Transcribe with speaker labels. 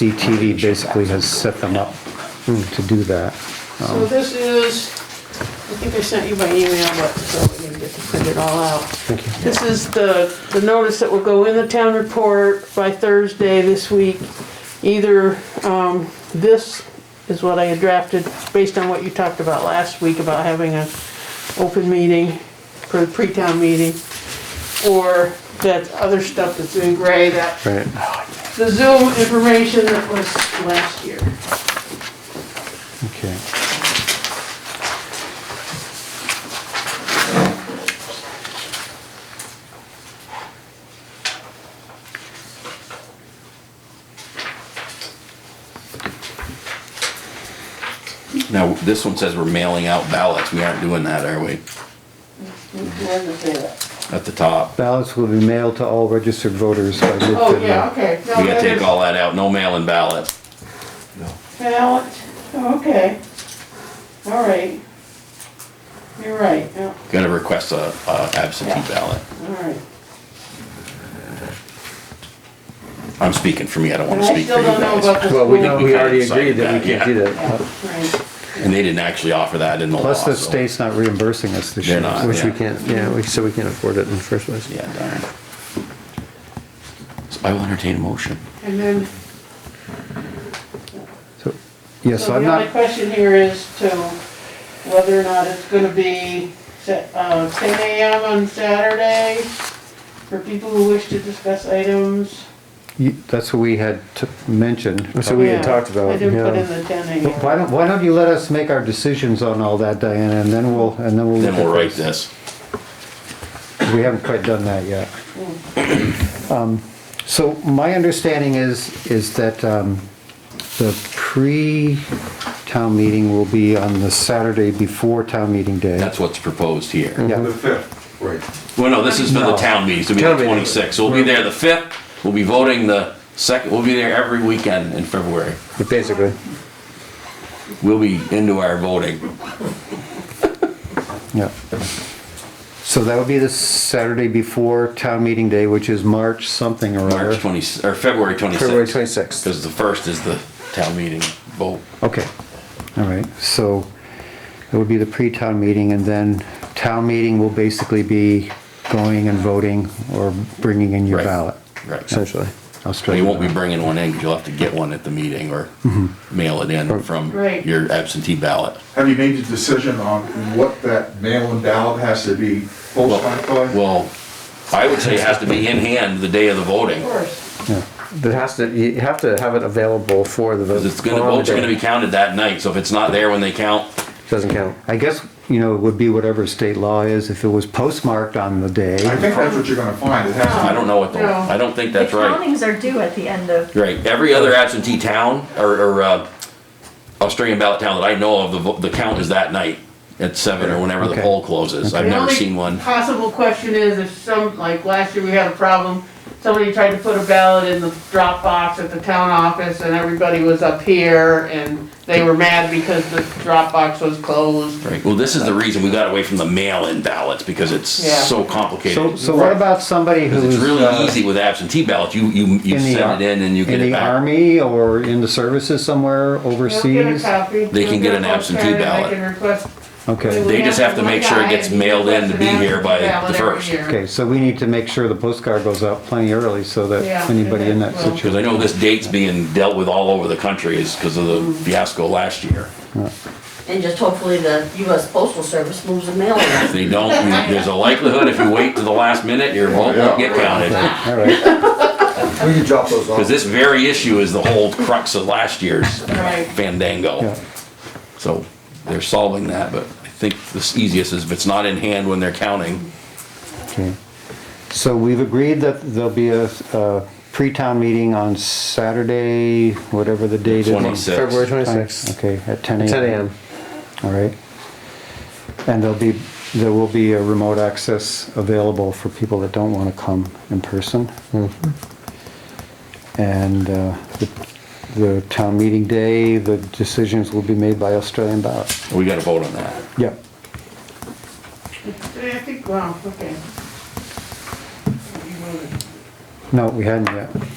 Speaker 1: HCTV basically has set them up hmm, to do that.
Speaker 2: So this is, I think I sent you by email, but so we didn't get to print it all out. Thank you. This is the, the notice that will go in the town report by Thursday this week. Either, um, this is what I had drafted, based on what you talked about last week about having an open meeting for the pre-town meeting, or that other stuff that's in gray, that
Speaker 1: Right.
Speaker 2: the Zoom information that was last year.
Speaker 1: Okay.
Speaker 3: Now, this one says we're mailing out ballots. We aren't doing that, are we? At the top.
Speaker 1: Ballots will be mailed to all registered voters by midnight.
Speaker 2: Oh, yeah, okay. No,
Speaker 3: We gotta
Speaker 2: that
Speaker 3: take
Speaker 2: is-
Speaker 3: all that out. No mailing ballot.
Speaker 2: Ballot, oh, okay. All right. You're right, yeah,
Speaker 3: Gotta request a, a absentee
Speaker 2: Yeah.
Speaker 3: ballot.
Speaker 2: all right.
Speaker 3: I'm speaking for me. I don't
Speaker 2: And
Speaker 3: wanna
Speaker 2: I
Speaker 3: speak for
Speaker 2: still
Speaker 3: you
Speaker 2: don't know about
Speaker 3: guys.
Speaker 2: the school.
Speaker 4: Well, we, we already
Speaker 3: kinda
Speaker 4: agreed that we
Speaker 3: decided
Speaker 4: can't do that.
Speaker 2: Yeah, Right,
Speaker 3: And they didn't actually offer that in the law,
Speaker 1: Plus the
Speaker 3: so-
Speaker 1: state's not reimbursing us this
Speaker 3: They're
Speaker 1: year.
Speaker 3: not.
Speaker 4: Which we
Speaker 3: Yeah.
Speaker 4: can't, yeah, we- so we can't afford it in the first place.
Speaker 3: Yeah, darn. So I will entertain a motion.
Speaker 2: and then,
Speaker 1: So- Yeah, so
Speaker 2: so
Speaker 1: I'm
Speaker 2: the only
Speaker 1: not,
Speaker 2: question here is to whether or not it's gonna be set, uh, ten AM on Saturday for people who wish to discuss items.
Speaker 1: you- that's what we had t- mentioned.
Speaker 4: That's what we
Speaker 2: Yeah,
Speaker 4: had talked about,
Speaker 2: I didn't put
Speaker 4: yeah.
Speaker 2: in the ten AM.
Speaker 1: Why don't, why don't you let us make our decisions on all that, Diana, and then we'll, and then we'll.
Speaker 3: Then
Speaker 1: look at
Speaker 3: we'll write
Speaker 1: this.
Speaker 3: this.
Speaker 1: We haven't quite done that yet. Um, So my understanding is, is that um, the pre-town meeting will be on the Saturday before town meeting day.
Speaker 3: That's what's proposed here.
Speaker 1: Yeah.
Speaker 5: The fifth, right.
Speaker 3: Well, no, this is for the
Speaker 1: No.
Speaker 3: town meetings. It'll be
Speaker 4: Town
Speaker 3: the
Speaker 4: meeting.
Speaker 3: twenty-sixth. We'll be there the fifth. We'll be voting the second. We'll be there every weekend in February.
Speaker 4: Basically.
Speaker 3: We'll be into our voting.
Speaker 1: Yeah. So that would be the Saturday before town meeting day, which is March something or
Speaker 3: March
Speaker 1: other.
Speaker 3: twenty, or February
Speaker 4: February
Speaker 3: twenty-sixth,
Speaker 4: twenty-sixth.
Speaker 3: because the first is the town meeting vote.
Speaker 1: Okay, all right, so it would be the pre-town meeting and then town meeting will basically be going and voting or bringing in your
Speaker 3: Right.
Speaker 1: ballot.
Speaker 3: Right.
Speaker 4: Essentially.
Speaker 1: I'll
Speaker 3: So
Speaker 1: straighten
Speaker 3: you won't
Speaker 1: that
Speaker 3: be
Speaker 1: out.
Speaker 3: bringing one in, 'cause you'll have to get one at the meeting or mail it in from
Speaker 2: Right.
Speaker 3: your absentee ballot.
Speaker 5: Have you made a decision on what that mail-in ballot has to be postmarked by?
Speaker 3: Well, I would say it has to be in hand the day of the voting,
Speaker 2: Of course,
Speaker 4: That has to, you have to have it available for the vote.
Speaker 3: 'cause it's gonna,
Speaker 4: on the
Speaker 3: votes are
Speaker 4: day.
Speaker 3: gonna be counted that night, so if it's not there when they count,
Speaker 4: Doesn't count.
Speaker 1: I guess, you know, it would be whatever state law is, if it was postmarked on the
Speaker 5: I
Speaker 1: day,
Speaker 5: think that's what you're gonna find, it
Speaker 3: I
Speaker 5: has to
Speaker 3: don't know what the,
Speaker 2: No.
Speaker 3: I don't think that's
Speaker 6: the
Speaker 3: right.
Speaker 6: countings are due at the end of
Speaker 3: Right, every other absentee town, or, or, uh, Australian ballot town that I know of, the, vo- the count is that night at seven or whenever the
Speaker 1: Okay.
Speaker 3: poll closes. I've
Speaker 2: The
Speaker 3: never
Speaker 2: only
Speaker 3: seen one.
Speaker 2: Possible question is if some, like last year we had a problem, somebody tried to put a ballot in the drop box at the town office and everybody was up here and they were mad because the drop box was closed.
Speaker 3: Right, well, this is the reason we got away from the mail-in ballots, because it's
Speaker 2: Yeah.
Speaker 3: so
Speaker 1: so,
Speaker 3: complicated.
Speaker 1: so what about somebody
Speaker 3: Because
Speaker 1: who's
Speaker 3: it's really
Speaker 1: uh,
Speaker 3: easy with absentee ballots, you, you, you
Speaker 1: in the ar-
Speaker 3: send it in and you get
Speaker 1: in
Speaker 3: it
Speaker 1: the
Speaker 3: back.
Speaker 1: army or in the services somewhere
Speaker 2: They'll get a
Speaker 1: overseas?
Speaker 2: copy.
Speaker 3: They can get an
Speaker 2: They'll
Speaker 3: absentee
Speaker 2: carry it. They
Speaker 3: ballot.
Speaker 2: can request-
Speaker 1: Okay,
Speaker 3: They just have to make sure it gets mailed in to be here by
Speaker 2: Request an absentee
Speaker 3: the
Speaker 2: ballot
Speaker 3: first.
Speaker 2: every year.
Speaker 1: okay, so we need to make sure the postcard goes out plenty early so that
Speaker 2: Yeah,
Speaker 1: anybody in that
Speaker 2: okay, well.
Speaker 3: Because
Speaker 1: situation.
Speaker 3: I know this date's being dealt with all over the country is because of the fiasco last year.
Speaker 7: And just hopefully the US Postal Service moves the mail
Speaker 3: If
Speaker 7: around.
Speaker 3: they don't, you- there's a likelihood if you wait to the last minute, your vote won't get counted.
Speaker 1: All right,
Speaker 5: We can drop those
Speaker 3: Because this very issue is the whole crux of last year's
Speaker 2: Right.
Speaker 1: yeah,
Speaker 3: fandango. So they're solving that, but I think the easiest is if it's not in hand when they're counting,
Speaker 1: okay. So we've agreed that there'll be a, a pre-town meeting on Saturday, whatever the date is. on-
Speaker 3: 26.
Speaker 4: February twenty-sixth,
Speaker 1: Okay, at ten AM.
Speaker 4: ten AM.
Speaker 1: All right. And there'll be, there will be a remote access available for people that don't want to come in person. And uh, the the town meeting day, the decisions will be made by Australian ballot.
Speaker 3: we gotta vote on that.
Speaker 1: Yep.
Speaker 2: I think, wow, okay.
Speaker 1: No, we hadn't yet.